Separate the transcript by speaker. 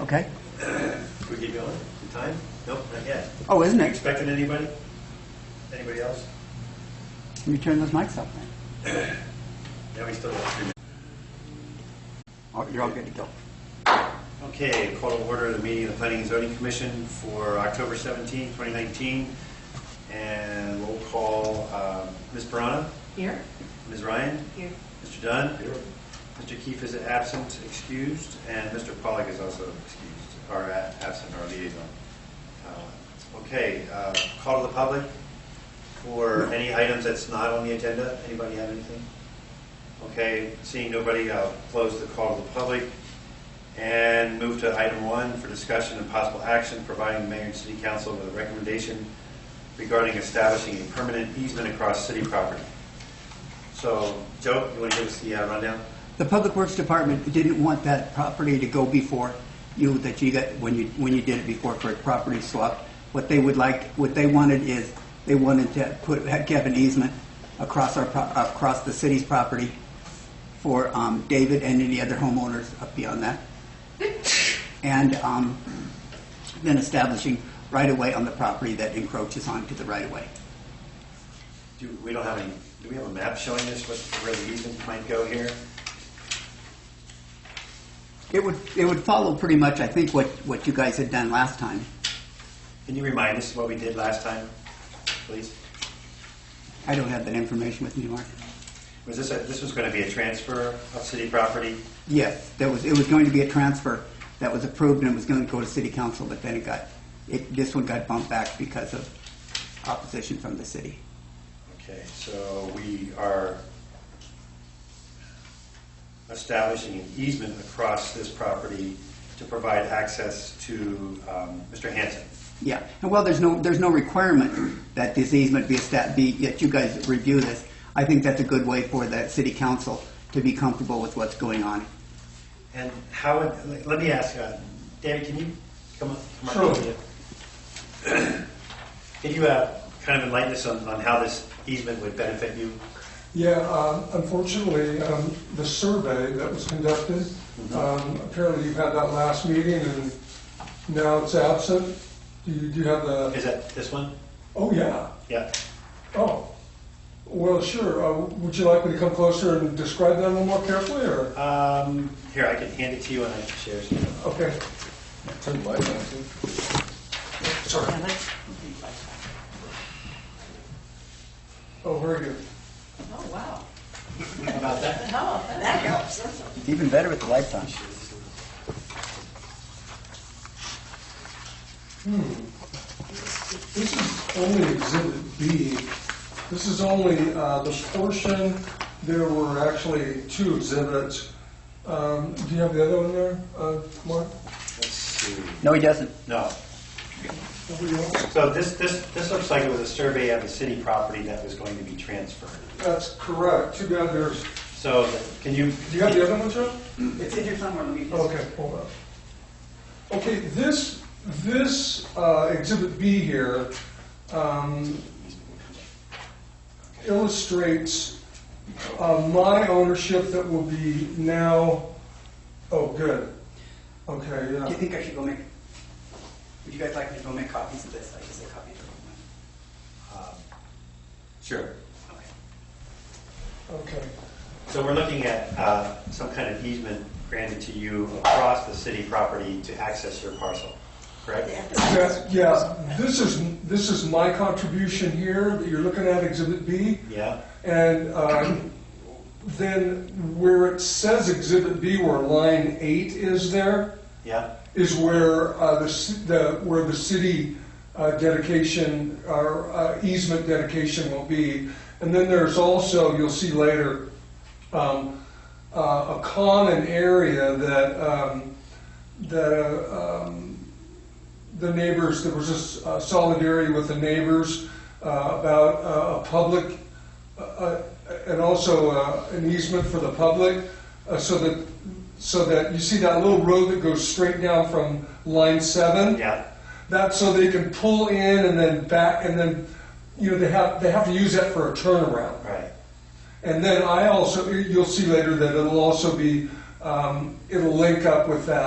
Speaker 1: Okay.
Speaker 2: Should we get going? The Time? Nope, not yet.
Speaker 1: Oh, isn't
Speaker 2: You
Speaker 1: it?
Speaker 2: expecting anybody? Anybody else?
Speaker 1: Let me turn those mics up then.
Speaker 2: No, we still have three minutes.
Speaker 1: Oh, You're all good to go.
Speaker 2: Okay, call to order the meeting of the Planning and Zoning Commission for October 17, 2019. And we'll call um, Ms. Brana,
Speaker 3: Here?
Speaker 2: Ms. Ryan,
Speaker 3: Here.
Speaker 2: Mr. Dunn. Mr. Keefe is absent, excused, and Mr. Pollak is also excused, or a- absent, or liaison. Uh, Okay, uh, call to the public for any items that's not on the agenda. Anybody have anything? Okay, seeing nobody, I'll close the call to the public and move to item one for discussion and possible action, providing the mayor and city council with a recommendation regarding establishing a permanent easement across city property. So, Joe, you want to give us the uh, rundown?
Speaker 1: The Public Works Department didn't want that property to go before you, that you got, when you, when you did it before for a property swap. What they would like, what they wanted is, they wanted to put, have an easement across our, pro- across the city's property for um, David and any other homeowners up beyond that. And um, then establishing right-of-way on the property that encroaches onto the right-of-way.
Speaker 2: Do, we don't have any, do we have a map showing us what, where the easement might go here?
Speaker 1: It would, it would follow pretty much, I think, what, what you guys had done last time.
Speaker 2: Can you remind us what we did last time, please?
Speaker 1: I don't have that information with me, Mark.
Speaker 2: Was this, a- this was going to be a transfer of city property?
Speaker 1: Yes, that was, it was going to be a transfer that was approved and it was going to go to city council, but then it got, it, this one got bumped back because of opposition from the city.
Speaker 2: Okay, so we are establishing an easement across this property to provide access to um, Mr. Hanson.
Speaker 1: Yeah, and while there's no, there's no requirement that this easement be a stat, be, that you guys review this, I think that's a good way for that city council to be comfortable with what's going on.
Speaker 2: And how, would- let me ask, uh, David, can you come up? come up
Speaker 4: Sure.
Speaker 2: here? Can you uh, kind of enlighten us on on how this easement would benefit you?
Speaker 4: Yeah, um, unfortunately, um, the survey that was conducted, um, apparently you had that last meeting and now it's absent. Do you, do you have the,
Speaker 2: Is that this one?
Speaker 4: oh, yeah,
Speaker 2: Yeah.
Speaker 4: oh. Well, sure, Uh, would you like me to come closer and describe that a little more carefully, or?
Speaker 2: Um, Here, I can hand it to you and I can share some.
Speaker 4: Okay,
Speaker 5: Turn the light on, too.
Speaker 4: sorry. Oh, very good.
Speaker 3: Oh, wow.
Speaker 2: How about that?
Speaker 3: Oh, that helps.
Speaker 1: It's even better with the lights on.
Speaker 4: This is only Exhibit B. This is only uh, the portion, there were actually two exhibits. Um, Do you have the other one there, uh, Mark?
Speaker 2: Let's see.
Speaker 1: No, he doesn't.
Speaker 2: No.
Speaker 4: Over here?
Speaker 2: So this, this, this looks like it was a survey of a city property that was going to be transferred.
Speaker 4: That's correct, too bad there's,
Speaker 2: So th- can you?
Speaker 4: do you have the other one, Joe?
Speaker 1: It's in here somewhere, let me
Speaker 4: Okay, hold on. Okay, this, this uh, Exhibit B here um, illustrates uh, my ownership that will be now, oh, good. Okay,
Speaker 1: Do you
Speaker 4: yeah.
Speaker 1: think I should go make, would you guys like me to go make copies of this? I guess I copied everyone.
Speaker 2: um, Sure.
Speaker 1: Okay.
Speaker 4: Okay,
Speaker 2: So we're looking at uh, some kind of easement granted to you across the city property to access your parcel, correct?
Speaker 4: Yeah, yeah, this is, this is my contribution here that you're looking at, Exhibit B.
Speaker 2: Yeah?
Speaker 4: And um, then where it says Exhibit B, where line eight is there,
Speaker 2: Yeah?
Speaker 4: is where uh, the, ci- the, where the city uh, dedication, or uh, easement dedication will be. And then there's also, you'll see later, um, uh, a common area that, um, that uh, um, the neighbors, there was this uh, solidarity with the neighbors uh, about uh, a public, uh, uh, and also uh, an easement for the public, uh, so that, so that, you see that little road that goes straight down from line seven?
Speaker 2: Yeah?
Speaker 4: That, so they can pull in and then back, and then, you know, they have, they have to use that for a turnaround.
Speaker 2: Right.
Speaker 4: And then I also, you'll see later that it'll also be, um, it'll link up with that.